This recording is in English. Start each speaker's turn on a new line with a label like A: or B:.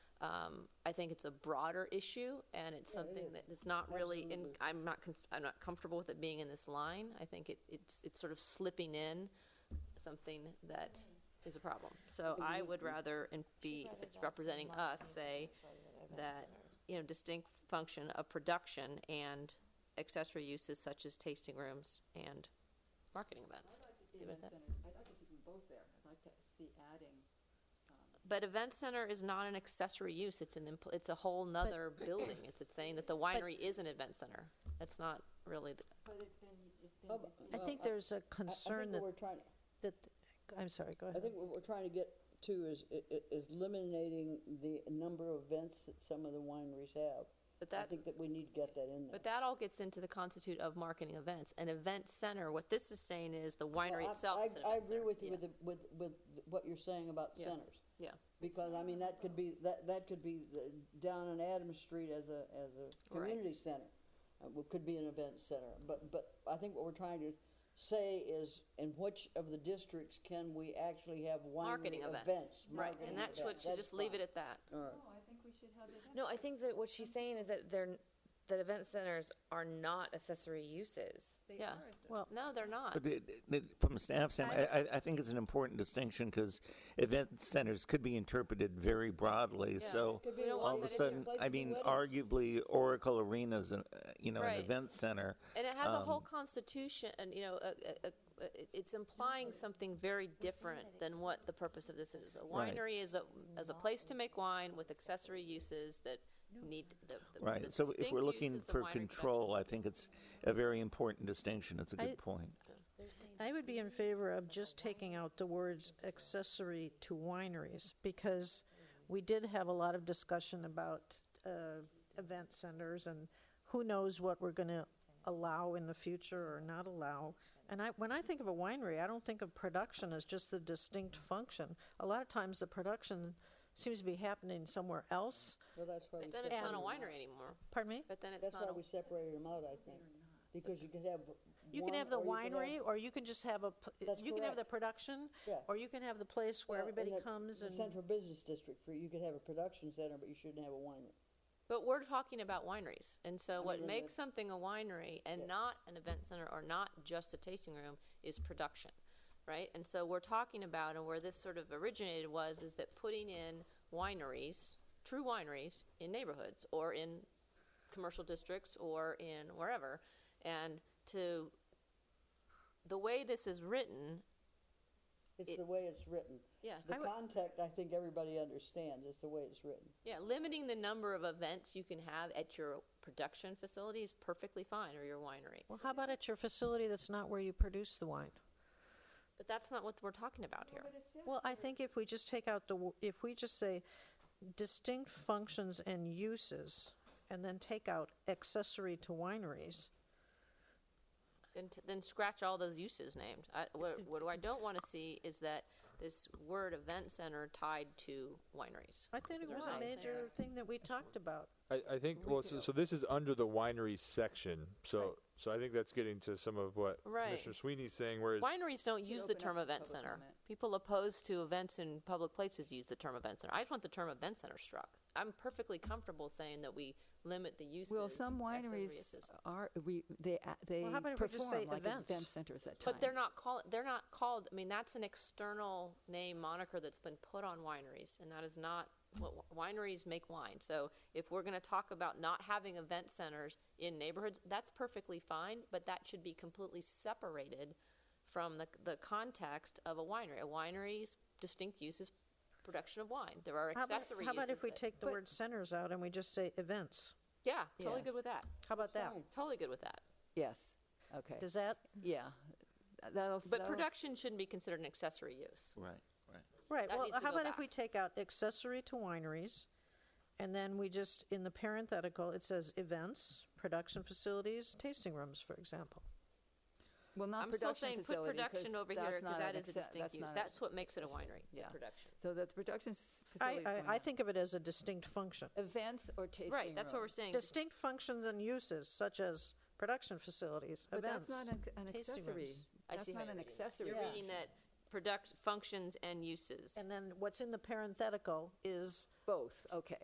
A: Um, I think it's a broader issue, and it's something that is not really in, I'm not, cons- I'm not comfortable with it being in this line. I think it, it's, it's sort of slipping in something that is a problem. So I would rather, and be, if it's representing us, say that, you know, distinct function of production and accessory uses such as tasting rooms and marketing events.
B: The
A: Leave it at
B: event
A: that.
B: center, I'd like to see them both there. I'd like to see adding,
A: But event center is not an accessory use, it's an, impl- it's a whole nother building. It's it's saying that the winery is an event center. That's not really, the-
B: but it's been, it's been
C: Oh, but-
B: mis-
D: I
C: Well,
D: think
C: I-
D: there's a
C: I- I
D: concern
C: think
D: that,
C: what we're trying-
D: that, I'm sorry, go
C: I
D: ahead.
C: think what we're trying to get to is, i- i- is eliminating the number of events that some of the wineries have.
A: but
C: I
A: that,
C: think that we need to get that in there.
A: but that all gets into the constitute of marketing events. An event center, what this is saying is the winery
C: Well, I-
A: itself
C: I-
A: is an event
C: I
A: center.
C: agree with you
A: Yeah.
C: with, the- with, with th- what you're saying about
A: Yeah.
C: centers.
A: Yeah.
C: Because, I mean, that could be, that, that could be the- down on Adams Street as a, as a
A: Right.
C: community center. Uh, well, Could be an event center, but, but I think what we're trying to say is, in which of the districts can we actually have winery
A: Marketing
C: events?
A: events, right,
C: marketing
A: and that's what,
C: events.
A: should
C: That's
A: just leave
C: fine.
A: it at that.
C: All right.
B: No, I think we should have the event.
E: No, I think that what she's saying is that they're, that event centers are not accessory uses.
B: They
A: Yeah.
B: are a-
D: Well,
A: No, they're not.
F: But it, it, from a staff standpoint, I, I, I think it's an important distinction because event centers could be interpreted very broadly. So
C: Could be
A: We don't
C: a
A: want
F: all of a
C: place-
F: sudden,
C: place
F: I
C: for
F: mean,
C: weddings.
F: arguably Oracle Arena's, an, uh, you know,
A: Right.
F: an event center.
A: And it has a
F: Um,
A: whole constitution, and you know, a, a, a, it- it's implying something very different than what the purpose of this is. A
F: Right.
A: winery is a, as a place to make wine with accessory uses that need the. the- the
F: Right. So if
A: distinct
F: we're
A: use
F: looking
A: is the
F: for
A: winery
F: control, I think it's a very important distinction. It's a
D: I-
F: good point.
D: I would be in favor of just taking out the words accessory to wineries, because we did have a lot of discussion about uh, event centers, and who knows what we're going to allow in the future or not allow. And I, when I think of a winery, I don't think of production as just the distinct function. A lot of times, the production seems to be happening somewhere else.
C: Well, that's why we.
A: But Then it's not a
C: separated 'em out.
A: winery anymore,
D: Pardon me?
A: but then it's
C: That's
A: not,
C: why
A: a-
C: we separated them out, I think, because you could have.
D: You
C: one
D: can have the
C: or you could
D: winery,
C: have-
D: or you can just have a, pl-
C: That's
D: you can have the
C: correct.
D: production,
C: Yeah.
D: or you can have the place where
C: well,
D: everybody
C: in the-
D: comes
C: the
D: and.
C: Central Business District, for, you could have a production center, but you shouldn't have a winery.
A: but we're talking about wineries. And so what
C: mean,
A: makes something a winery and not an event center or not just a tasting room is production, right? And so we're talking about, and where this sort of originated was, is that putting in wineries, true wineries, in neighborhoods or in commercial districts or in wherever. And to, the way this is written,
C: It's
A: It-
C: the way it's written.
A: yeah.
C: The
D: I would-
C: context, I think everybody understands, is the way it's written.
A: Yeah, limiting the number of events you can have at your production facility is perfectly fine, or your winery.
D: Well, how about at your facility that's not where you produce the wine?
A: But that's not what we're talking about here.
B: But it's
D: Well, I think if we just take out the, wo- if we just say distinct functions and uses, and then take out accessory to wineries,
A: Then, t- then scratch all those uses named. I, what, what I don't want to see is that this word event center tied to wineries.
D: I think it
A: There's
D: was a
A: always that.
D: major thing that we talked about.
G: I, I think well, so, so this is under the winery section. So so I think that's getting to some of what
A: Right.
G: Commissioner Sweeney's saying. Whereas
A: Wineries don't use the
B: open
A: term
B: up to
A: event
B: public
A: center.
B: comment.
A: People opposed to events in public places use the term event center. I just want the term event center struck. I'm perfectly comfortable saying that we limit the uses.
B: Well, some
A: accessory
B: wineries
A: uses.
B: are, we, they, a- they
D: how about if we just say
B: perform like
D: events?
B: event centers at times.
A: But they're not called. They're not called. I mean, that's an external name moniker that's been put on wineries, and that is not what wi- wineries make wine. So if we're going to talk about not having event centers in neighborhoods, that's perfectly fine, but that should be completely separated from the the context of a winery. A winery's distinct use is production of wine. There are
D: How about-
A: accessory
D: How about
A: uses
D: if we
A: that-
D: take the word centers out and we just say events?
A: Yeah, totally good
B: Yes.
A: with that.
D: How about that?
C: fine.
A: Totally good with that.
B: Yes, okay,
D: Does that,
B: yeah. That'll,
A: But
B: that'll-
A: production shouldn't be considered an accessory use.
F: Right, right.
D: Right,
A: That
D: well,
A: needs to
D: how
A: go
D: about if
A: back.
D: we take out accessory to wineries, and then we just, in the parenthetical, it says events, production facilities, tasting rooms, for example.
B: Well, not
A: I'm still
B: production
A: saying put
B: facility, 'cause
A: production over here
B: that's
A: because
B: not
A: that
B: an
A: is a
B: acce-
A: distinct use.
B: not an-
A: That's what makes it a winery, the
B: Yeah.
A: production.
B: So that the production s-
D: I,
B: facility. is
D: I, I
B: going
D: think of it as a distinct function.
B: on. Events or tasting
A: Right, that's what we're
B: rooms.
A: saying.
D: Distinct functions and uses such as production facilities,
B: But that's
D: events,
B: not an an
D: tasting
B: accessory.
D: rooms.
A: I
B: That's
A: see how
B: not
A: you're
B: an
A: reading that.
B: accessory.
A: You're reading that product, functions and uses.
D: And then what's in the parenthetical is
B: Both, okay.